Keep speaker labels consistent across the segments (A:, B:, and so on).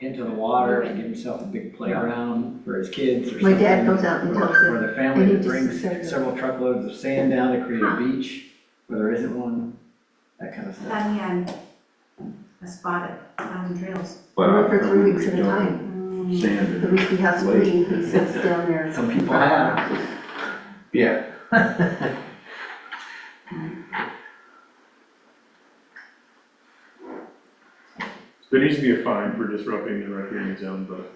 A: into the water and get himself a big playground for his kids or
B: My
A: something.
B: dad goes out and
A: Or-
B: tells them,
A: Or the family
B: need
A: that
B: to
A: brings
B: serve them.
A: several truckloads of sand down to create a beach where there isn't one, that kind of stuff.
C: Diane, I spotted, on trails.
B: I
D: But I
B: work for three weeks at a
D: don't
B: time. The
D: Sand
B: week he has to leave, he sits down there.
A: Some people have.
D: yeah,
E: There needs to be a fine for disrupting the riparian zone, but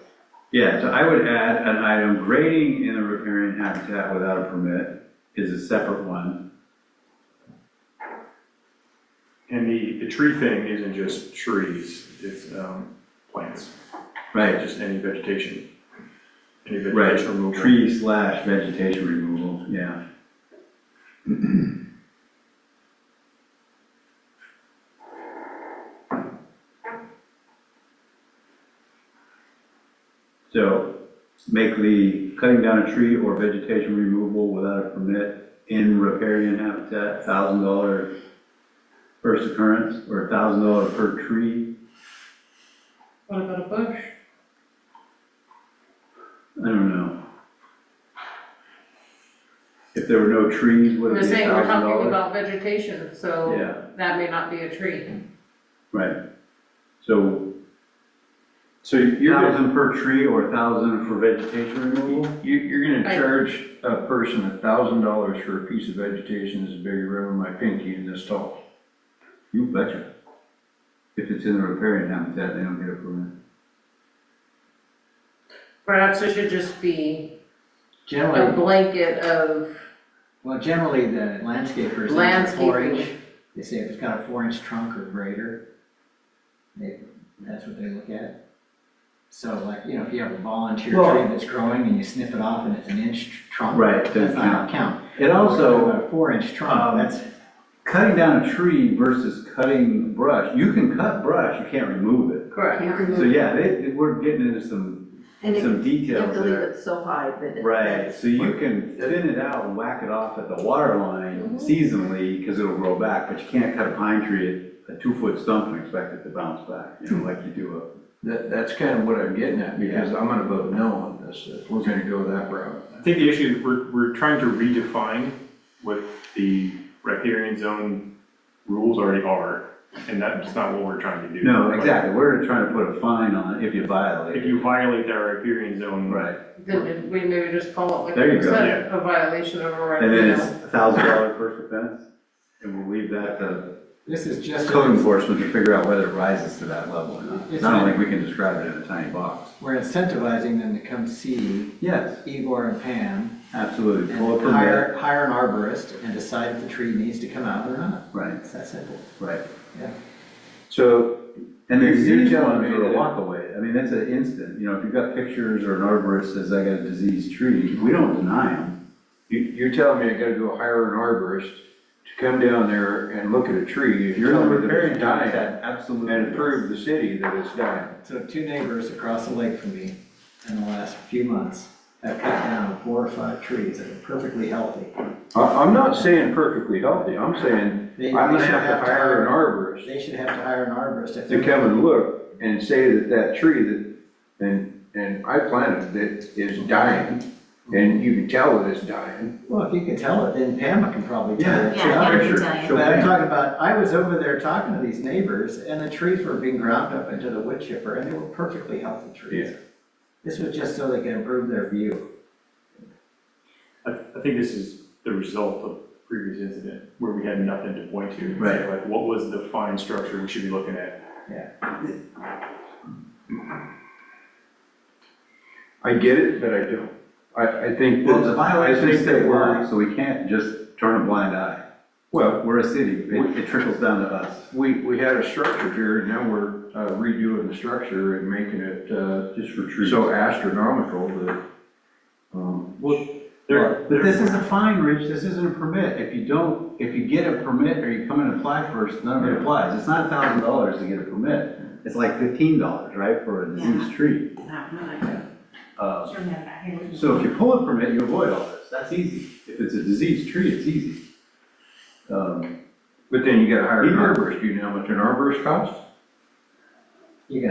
F: Yeah, so I would add an item, grading in a riparian habitat without a permit is a separate one.
E: and the, the tree thing isn't just trees, it's, um, plants,
F: Right,
E: just any vegetation. Any
F: right,
E: vegetation removal.
F: tree slash vegetation removal, yeah. So make the cutting down a tree or vegetation removal without a permit in riparian habitat, thousand dollar first occurrence, or thousand dollar per tree.
G: What about a bush?
F: I don't know. If there were no trees, would
G: We're
F: it be
G: saying, we're
F: thousand
G: talking
F: dollars?
G: about vegetation, so
F: Yeah,
G: that may not be a tree.
F: right. So
D: so you're, gonna-
F: thousand per tree or thousand for vegetation removal?
D: you- you're gonna
G: I-
D: charge a person a thousand dollars for a piece of vegetation that's bigger around my pinky and this tall.
F: You betcha. If it's in the riparian habitat, they don't get a permit.
G: Perhaps it should just be a
A: Generally,
G: blanket of
A: well, generally the landscapers, they say four inch,
G: landscaping.
A: they say if it's got a four inch trunk or greater, they, that's what they look at. So like, you know, if you have a volunteer tree
F: Well-
A: that's growing and you snip it off and it's an inch trunk,
F: Right,
A: that's
F: doesn't
A: not gonna
F: count.
A: count.
F: It
A: We're
F: also,
A: talking about a Four inch
F: um,
A: trunk, that's
F: cutting down a tree versus cutting brush, you can cut brush, you can't remove it.
G: Correct.
B: Can't
F: So
B: remove-
F: yeah, they, they- we're getting into some,
B: And it-
F: some
B: you have
F: details
B: to leave
F: there.
B: it so high that it.
F: Right, so you can thin it out and whack it off at the water
D: Mm-hmm.
F: line seasonally, because it'll grow back, but you can't cut a pine tree at a two-foot stump and expect it to bounce back, you know, like you do
D: That, that's kind of what I'm getting at, because I'm gonna vote no on this, if we're gonna go that route.
E: I think the issue, we're, we're trying to redefine what the riparian zone rules already are, and that's not what we're trying to
F: a.
E: do.
F: No,
E: Like,
F: exactly, we're trying to put a fine on it if you violate
E: If
F: it.
E: you violate that riparian zone.
F: Right,
G: Then we maybe just call it like
F: There you
G: you
F: go.
G: said, a violation of a right.
F: and then
G: you
F: it's
G: know.
F: a thousand dollar first offense, and we'll leave that to
A: This is just,
F: code enforcement to figure out whether it rises to that level or not. It's not like we can describe it in a tiny box.
A: we're incentivizing them to come see
F: Yes,
A: Igor and Pam
F: absolutely,
A: and
F: pull up a bit,
A: hire, hire an arborist and decide if the tree needs to come out or not.
F: right,
A: It's that simple.
F: right.
D: So,
F: And
D: Your
F: there's disease
D: disease
F: ones
D: ones
F: are
D: are-
F: a walk away. I mean, that's an instant, you know, if you've got pictures or an arborist says, I got a diseased tree, we don't deny them.
D: you, you're telling me I gotta go hire an arborist to come down there and look at a tree, if you're
F: in the
D: telling me that
F: riparian
D: it's dying,
F: habitat, absolutely.
D: and prove the city that it's dying.
A: So two neighbors across the lake from me in the last few months have cut down four or five trees that are perfectly healthy.
D: I, I'm not saying perfectly healthy, I'm saying,
A: They-
D: I'm gonna
A: they should
D: have to hire an arborist
A: They should have to hire an arborist if
D: to
A: they're,
D: come and look and say that that tree that, and, and I planted that is dying, and you can tell that it's dying.
A: well, if you can tell it, then Pam can probably tell it.
C: Yeah, yeah, I can
F: Picture,
C: tell you.
F: show
A: But I'm
F: them.
A: talking about, I was over there talking to these neighbors and the trees were being ground up into the wood chipper and they were perfectly healthy trees. This was just so they could improve their view.
E: I, I think this is the result of previous incident where we had nothing to point to. It's
F: Right.
E: Like, what was the fine structure we should be looking at?
D: I get it, but I don't. I, I think.
F: Well,
D: that-
F: it's a
D: I
F: violation of
D: think that
F: state
D: we're-
F: law, so we can't just turn a blind eye.
D: Well,
F: We're a city, it it trickles down to us.
D: we, we had a structure here, and now we're uh, redoing the structure and making it, uh,
F: Just for trees.
D: so astronomical that, um,
E: Well, there,
F: But
E: there,
F: this is a fine, Rich, this isn't a permit. If you don't, if you get a permit or you come and apply first, none of it
D: Yeah.
F: applies. It's not thousand dollars to get a permit. It's like fifteen dollars, right, for a diseased tree.
C: No, no, I don't.
F: Uh,
C: Sure, man, I hear you.
F: So if you pull a permit, you avoid all this, that's easy. If it's a diseased tree, it's easy. Um,
D: but then you gotta hire an
F: Either-
D: arborist, do you know how much an arborist costs?
A: You can